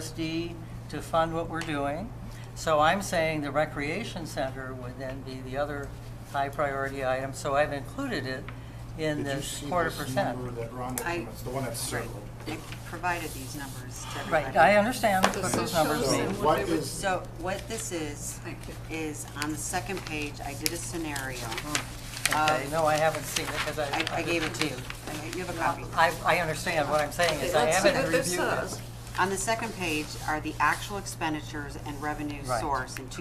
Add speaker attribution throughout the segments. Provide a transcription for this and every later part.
Speaker 1: RSD to fund what we're doing. So I'm saying the recreation center would then be the other high priority item, so I've included it in
Speaker 2: Did you
Speaker 1: this
Speaker 2: see
Speaker 1: quarter
Speaker 2: this
Speaker 1: percent.
Speaker 2: number that Rhonda
Speaker 3: I-
Speaker 2: came- It's the one that's circled.
Speaker 3: They provided these numbers to everybody.
Speaker 1: Right, I understand what
Speaker 4: This
Speaker 1: those
Speaker 4: shows
Speaker 1: numbers
Speaker 2: So
Speaker 4: them
Speaker 1: mean.
Speaker 2: what
Speaker 4: they would-
Speaker 2: is-
Speaker 3: So what this is, is on the second page, I did a scenario.
Speaker 1: Okay, no, I haven't seen it because I.
Speaker 3: I, um, I gave it to you. I- You have a copy.
Speaker 1: I, I understand what I'm saying is I
Speaker 4: Let's see
Speaker 1: haven't
Speaker 4: what this
Speaker 1: reviewed it.
Speaker 4: says.
Speaker 3: On the second page are the actual expenditures and revenue
Speaker 1: Right,
Speaker 3: source in
Speaker 1: correct.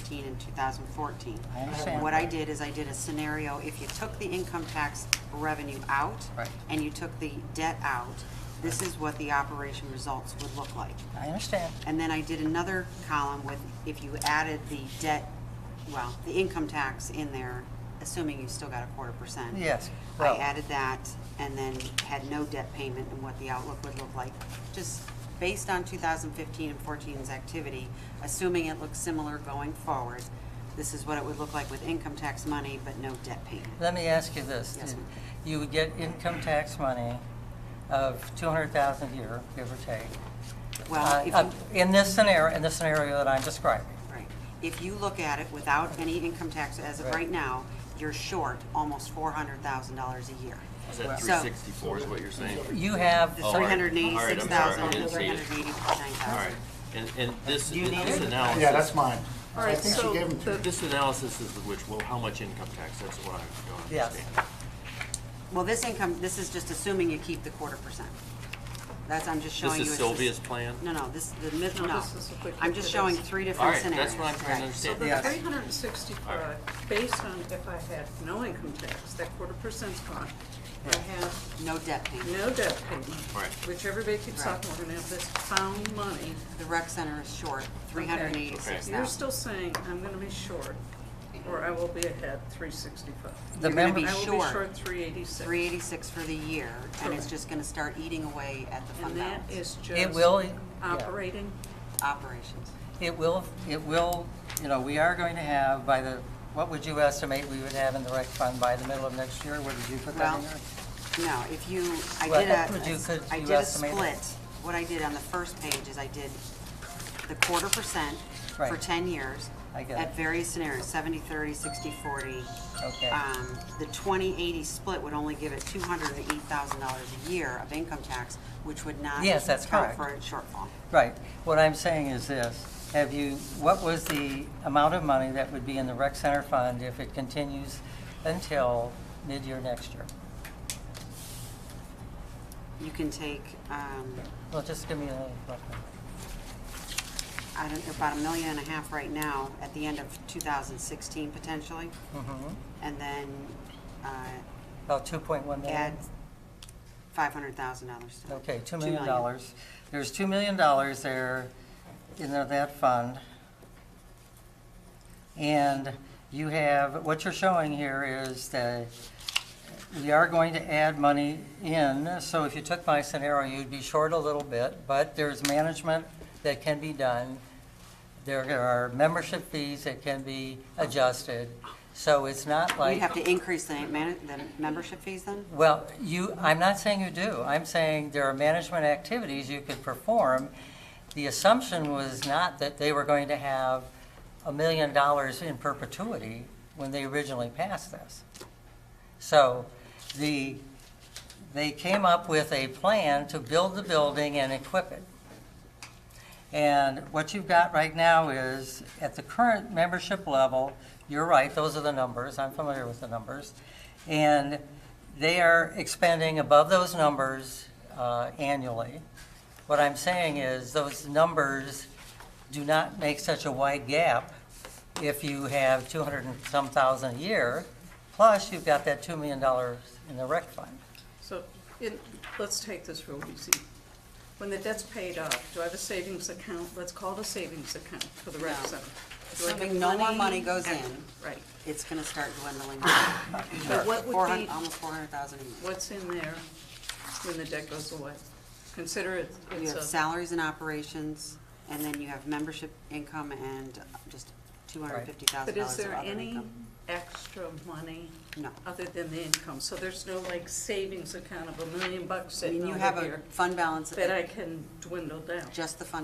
Speaker 3: 2015 and 2014.
Speaker 1: I understand.
Speaker 3: What I did is I did a scenario, if you took the income tax revenue out.
Speaker 1: Right.
Speaker 3: And you took the debt out, this is what the operation results would look like.
Speaker 1: I understand.
Speaker 3: And then I did another column with, if you added the debt, well, the income tax in there, assuming you still got a quarter percent.
Speaker 1: Yes,
Speaker 3: I
Speaker 1: well-
Speaker 3: added that and then had no debt payment and what the outlook would look like. Just based on 2015 and 14's activity, assuming it looks similar going forward, this is what it would look like with income tax money, but no debt payment.
Speaker 1: Let me ask you this.
Speaker 3: Yes, ma'am.
Speaker 1: You would get income tax money of 200,000 a year, give or take.
Speaker 3: Well,
Speaker 1: uh,
Speaker 3: if you-
Speaker 1: up- In this scenario, in the scenario that I'm describing.
Speaker 3: Right. If you look at it without any income tax as of
Speaker 1: Right.
Speaker 3: right now, you're short almost four hundred thousand dollars a year.
Speaker 5: Is that
Speaker 3: So-
Speaker 5: three sixty-four is what you're saying?
Speaker 1: You have,
Speaker 3: The
Speaker 5: Oh, all
Speaker 3: three
Speaker 5: right.
Speaker 3: hundred and eighty-six
Speaker 5: All right, I'm sorry, I
Speaker 3: thousand,
Speaker 5: didn't see
Speaker 3: three
Speaker 5: it.
Speaker 3: hundred and eighty-nine thousand.
Speaker 5: All right, and, and this,
Speaker 1: You need
Speaker 5: this
Speaker 1: it?
Speaker 5: analysis.
Speaker 2: Yeah, that's mine.
Speaker 4: All
Speaker 2: I
Speaker 4: right,
Speaker 2: think she
Speaker 4: so
Speaker 2: gave them to
Speaker 4: the-
Speaker 2: me.
Speaker 5: This analysis is which, well, how much income tax, that's what I don't
Speaker 1: Yes.
Speaker 5: understand.
Speaker 3: Well, this income, this is just assuming you keep the quarter percent. That's, I'm just showing
Speaker 5: This
Speaker 3: you.
Speaker 5: is
Speaker 3: it's just-
Speaker 5: Sylvia's plan?
Speaker 3: No, no, this, the mid,
Speaker 4: No,
Speaker 3: no.
Speaker 4: this is what we
Speaker 3: I'm just
Speaker 4: put it
Speaker 3: showing
Speaker 4: as.
Speaker 3: three
Speaker 5: All
Speaker 3: different
Speaker 5: right,
Speaker 3: scenarios.
Speaker 5: that's what I'm trying to
Speaker 3: Right.
Speaker 4: So the
Speaker 5: understand.
Speaker 1: Yes.
Speaker 4: three hundred and sixty-five, based on if I had no income tax, that quarter percent's gone, I have
Speaker 3: No debt payment.
Speaker 4: no debt payment.
Speaker 5: Right.
Speaker 4: Which everybody keeps
Speaker 3: Right.
Speaker 4: talking, we're gonna have this found money.
Speaker 3: The rec center is short, three hundred and eighty-six
Speaker 4: You're
Speaker 3: thousand.
Speaker 4: still saying, I'm gonna be short, or I will be ahead three sixty-five.
Speaker 1: the
Speaker 3: You're gonna
Speaker 1: member,
Speaker 3: be
Speaker 4: I will be
Speaker 3: short.
Speaker 4: short three eighty-six.
Speaker 3: Three eighty-six for the year, and it's
Speaker 4: Correct.
Speaker 3: just gonna start eating away at the fund
Speaker 4: And that
Speaker 3: balance.
Speaker 4: is just.
Speaker 1: it will, yeah.
Speaker 4: Operating,
Speaker 3: Operations.
Speaker 1: It will, it will, you know, we are going to have by the, what would you estimate we would have in the rec fund by the middle of next year? What did you put that in
Speaker 3: Well,
Speaker 1: there?
Speaker 3: No, if you, I
Speaker 1: Well,
Speaker 3: did
Speaker 1: would you- could
Speaker 3: a, I
Speaker 1: you
Speaker 3: did a
Speaker 1: estimate it?
Speaker 3: split. What I did on the first page is I did the quarter percent for
Speaker 1: Right.
Speaker 3: 10 years.
Speaker 1: I get
Speaker 3: At
Speaker 1: it.
Speaker 3: various scenarios, 70, 30, 60, 40.
Speaker 1: Okay.
Speaker 3: Um, The 20, 80 split would only give it $208,000 a year of income tax, which would not.
Speaker 1: Yes, that's
Speaker 3: count
Speaker 1: correct.
Speaker 3: For a shortfall.
Speaker 1: Right. What I'm saying is this, have you, what was the amount of money that would be in the rec center fund if it continues until mid-year next year?
Speaker 3: You can take, um,
Speaker 1: Well, just give me a rough number.
Speaker 3: I don't, about a million and a half right now at the end of 2016 potentially.
Speaker 1: Mhm.
Speaker 3: And then uh,
Speaker 1: About 2.1 million?
Speaker 3: add five hundred thousand dollars to it.
Speaker 1: Okay, $2
Speaker 3: Two
Speaker 1: million.
Speaker 3: million.
Speaker 1: There's $2 million there in that fund. And you have, what you're showing here is that we are going to add money in. So if you took my scenario, you'd be short a little bit, but there's management that can be done. There are membership fees that can be adjusted. So it's not like.
Speaker 3: You'd have to increase the man, the membership fees then?
Speaker 1: Well, you, I'm not saying you do. I'm saying there are management activities you could perform. The assumption was not that they were going to have a million dollars in perpetuity when they originally passed this. So the, they came up with a plan to build the building and equip it. And what you've got right now is, at the current membership level, you're right, those are the numbers, I'm familiar with the numbers. And they are expending above those numbers uh, annually. What I'm saying is, those numbers do not make such a wide gap if you have 200 and some thousand a year, plus you've got that $2 million in the rec fund.
Speaker 4: so, in, let's take this real easy. When the debt's paid off, do I have a savings account? Let's call it a savings account for the rec
Speaker 3: No.
Speaker 4: center. Do I have
Speaker 3: Assuming no more money goes in.
Speaker 4: Right.
Speaker 3: It's gonna start dwindling.
Speaker 4: But what
Speaker 3: Four
Speaker 4: would
Speaker 3: hun-
Speaker 4: be,
Speaker 3: Almost four hundred um, thousand a year.
Speaker 4: what's in there when the debt goes away? Consider it,
Speaker 3: You
Speaker 4: it's
Speaker 3: have
Speaker 4: a,
Speaker 3: salaries and operations, and then you have membership income and just two hundred fifty thousand
Speaker 4: but
Speaker 3: dollars of
Speaker 4: is there
Speaker 3: other
Speaker 4: any
Speaker 3: income.
Speaker 4: extra money
Speaker 3: No.
Speaker 4: other than the income? So there's no like savings account of a million bucks
Speaker 3: I
Speaker 4: sitting
Speaker 3: mean, you
Speaker 4: over
Speaker 3: have a
Speaker 4: here
Speaker 3: fund balance,
Speaker 4: that I can dwindle down?
Speaker 3: just the fund